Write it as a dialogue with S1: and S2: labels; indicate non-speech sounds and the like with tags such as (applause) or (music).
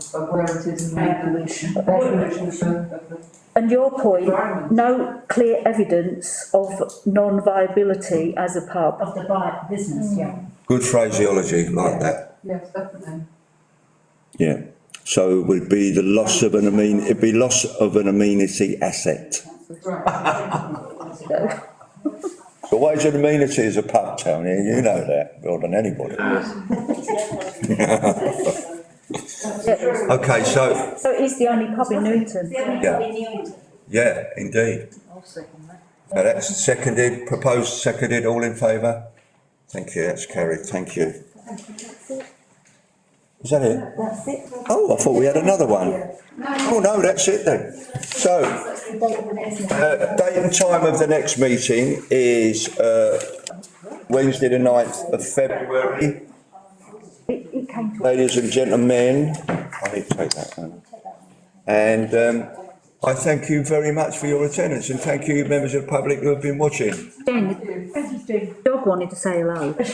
S1: of where it is in the evolution.
S2: Evolution.
S1: Evolution of the
S2: And your point,
S1: environment.
S2: no clear evidence of non-viability as a pub.
S3: of the buy, business, yeah.
S4: Good phraseology like that.
S1: Yes, definitely.
S5: Yeah, so it would be the loss of an amen, it'd be loss of an amenity asset.
S1: That's right.
S5: But what is an amenity as a pub, Tony? You know that, more than anybody. (laughs)
S2: Yeah.
S4: Okay, so,
S2: So it is the only pub in Newington.
S4: yeah, indeed.
S1: I'll second that.
S4: Now that's seconded, proposed, seconded, all in favour? Thank you, that's carried, thank you. Is that it?
S3: That's it.
S4: Oh, I thought we had another one. Oh, no, that's it then. So, uh, date and time of the next meeting is, uh, Wednesday the ninth of February.
S2: It, it came to,
S4: Ladies and gentlemen, I need to take that down. And, um, I thank you very much for your attendance and thank you members of the public who have been watching.
S2: Jen,
S3: Thank you, Jim.
S2: dog wanted to say hello.